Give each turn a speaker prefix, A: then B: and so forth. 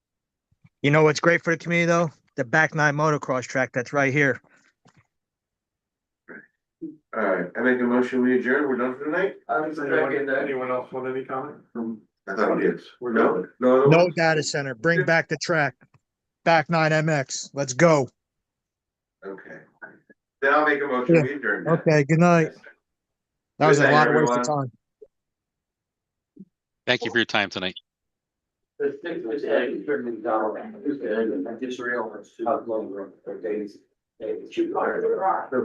A: You know what's great for the community though? The back nine motocross track that's right here.
B: All right, I make a motion, we adjourn, we're done for tonight? Hmm,
C: Does Anyone anyone else want any comment?
B: I thought we did.
C: We're
B: No,
C: done.
B: no.
A: No data center. Bring back the track. Back nine MX. Let's go.
B: Okay. Then I'll make a motion, we adjourn.
A: Okay, good night. That was
B: Good
A: a
B: night,
A: lot of waste of
B: everyone.
A: time.
D: Thank you for your time tonight.
E: The six was eight, thirty dollars. I just realized. How long, days, days.